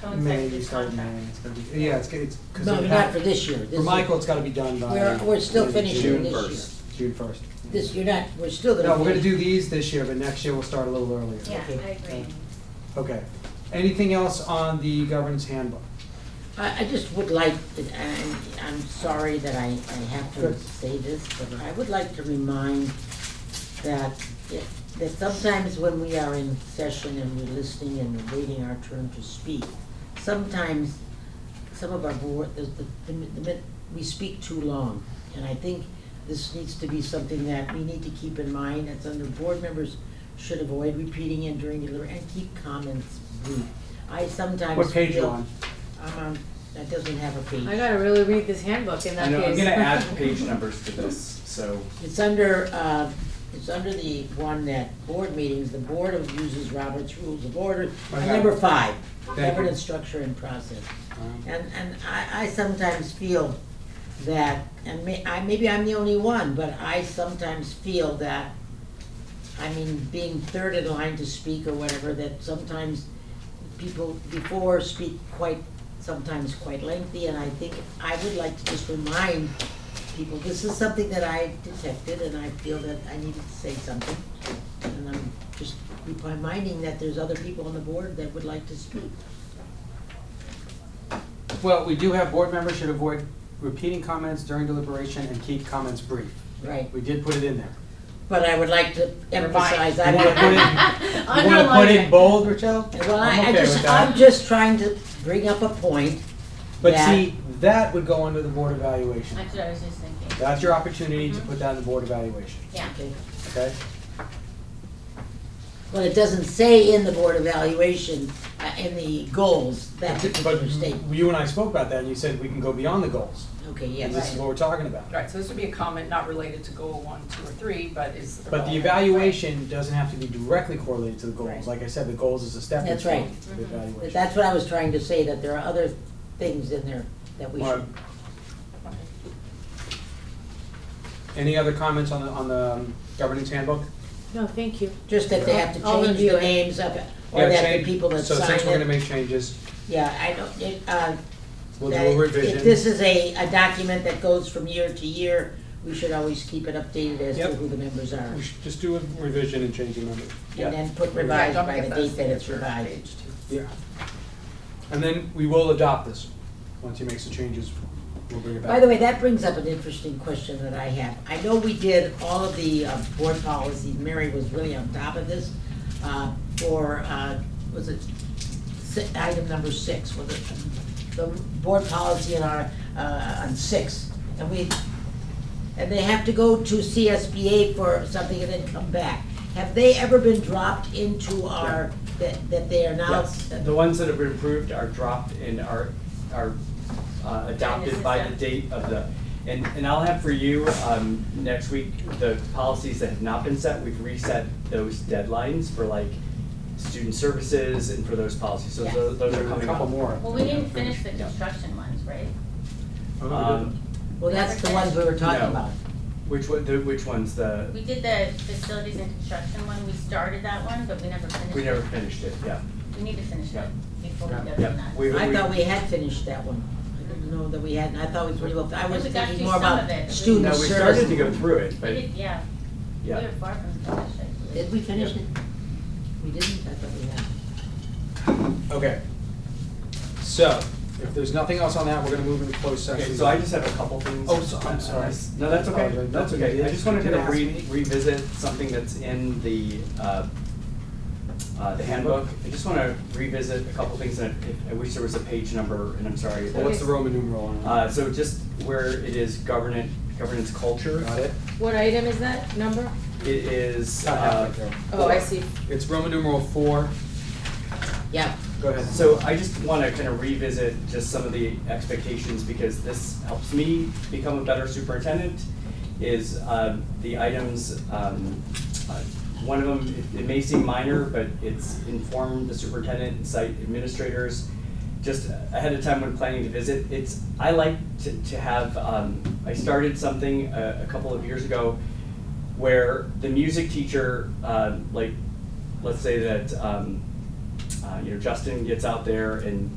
coincide May, with we his start in May, contract. it's gonna be, yeah, it's, g- it's. 'cause No, it not ha- for this year. This For is- Michael, it's gotta be done by. We're- we're still maybe finishing June this 1st. June first. This, you're not, we're still gonna. No, we're gonna finish. do these this year, but next year we'll start a little earlier. Yeah, I Okay. agree. Okay. Anything else on the governance handbook? I, I just would like, to- and I'm sorry that I, I have to Good. say this, but I would like to remind that, it- that sometimes when we are in session and we're listening and we're waiting our turn to speak, sometimes some of our board, the, the, the mi- the, mi- we speak too long. And I think this needs to be something that we need to keep in mind, that's under board members should avoid repeating and during deliber and keep comments brief. I sometimes What page you feel- on? I'm on, Uh-huh. that doesn't have a I page. gotta really read this handbook in that I know, case. I'm gonna add page numbers to this, so It's under, uh, it's under the one that board meetings, the board of uses Robert's Rules of Order, Okay. number five, Thank you. governance structure and process. Um, And, and I, I sometimes feel that, and may, I, maybe I'm the only one, but I sometimes feel that, I mean, being third in line to speak or whatever, that sometimes people before speak quite, sometimes quite lengthy, and I think, I would like to just remind people, this is something that I detected, and I feel that I needed to say something. And I'm just reminding that there's other people on the board that would like to speak. Well, we do have board members should avoid repeating comments during deliberation and keep comments brief. Right. We did put it in there. But I would like to emphasize, I You wanna put would, it, you wanna put Underline it it. bold, Rochelle? well, I, I'm I okay with just, that. I'm just trying to bring up a point. But that- see, that would go under the board evaluation. That's what I was just thinking. That's your opportunity to put that in the board evaluation, Yeah. Okay. okay? Well, it doesn't say in the board evaluation, uh, in the goals, that But particular statement. you and I spoke about that, and you said we can go beyond the goals. Okay, And this is yes. what we're talking about. Right, so this would be a comment not related to goal one, two, or three, but is. But the evaluation doesn't have to be directly correlated to the goals. Right. Like I said, the goals is a stepping That's right. stone to the But evaluation. That's what I was trying to say, that there are other things in there that we All should. right. Any other comments on the, on the um, governance handbook? No, thank you. Just that they have to I'll change review the it. names of, it, Yeah, or that the change- people that So since we're gonna sign it. make changes, Yeah, I don't, it, uh, we'll do that a revision. If this is a, a document that goes from year to year, we should always keep it updated as to Yep. who the members are. We should just do a revision and change the number. And then put Yeah, revised don't by forget the those date that it's signature revised. page too. Yeah. And then we will adopt this. Once he makes the changes, we'll bring it back. By the way, that brings up an interesting question that I have. I know we did all of the uh, board policies, Mary was really on top of this, uh, for, uh, was it si- item number six, was it the board policy in our, uh, on six? And we, and they have to go to CSBA for something and then come back. Have they ever been dropped into our, that, that they are now? Yes, the ones that have been approved are dropped and are, are uh, adopted by the date of the, and, and I'll have for you, um, next week, the policies that have not been set, we've reset those deadlines for like student services and for those policies, so Yes. tho- those are There are a coming up. couple more. Well, we didn't finish the construction ones, right? Um, Well, that's the ones we were talking No. about. which one, the, which ones, the, We did the facilities and construction one, we started that one, but we never finished it. we never finished it, yeah. We need to finish it Yeah. before we go to Yeah, that. we- I thought we had finished that one. I didn't know that we hadn't, I thought we were, well, I was We got thinking through more some of it. about we- student No, we started to service. go through it, We but, did, yeah, we yeah. were far from finished, I believe. Did we finish it? We didn't, I thought we had. Okay. So, if there's nothing else on that, we're gonna move into closed session. Okay, so I just have a couple things. Oh, so- I'm sorry. No, that's okay, Apologize. that's okay. I just wanted Did to I ask re- me? revisit something that's in the, uh, uh, the handbook. I just wanna revisit a couple things that, I wish there was a page number, and I'm sorry. Well, What's the Roman numeral on it? Uh, so just where it is governance, governance culture, Got it? What item is that, number? it is, Not uh, halfway through. Oh, I see. It's Roman numeral four. Yeah, Go ahead. So I just want to kind of revisit just some of the expectations because this helps me become a better superintendent. Is um, the items, um, uh, one of them, it- it may seem minor, but it's inform the superintendent and site administrators just ahead of time when planning to visit. It's, I like to, to have, um, I started something a, a couple of years ago where the music teacher, Uh, um, like, let's say that, um, uh, you know, Justin gets out there and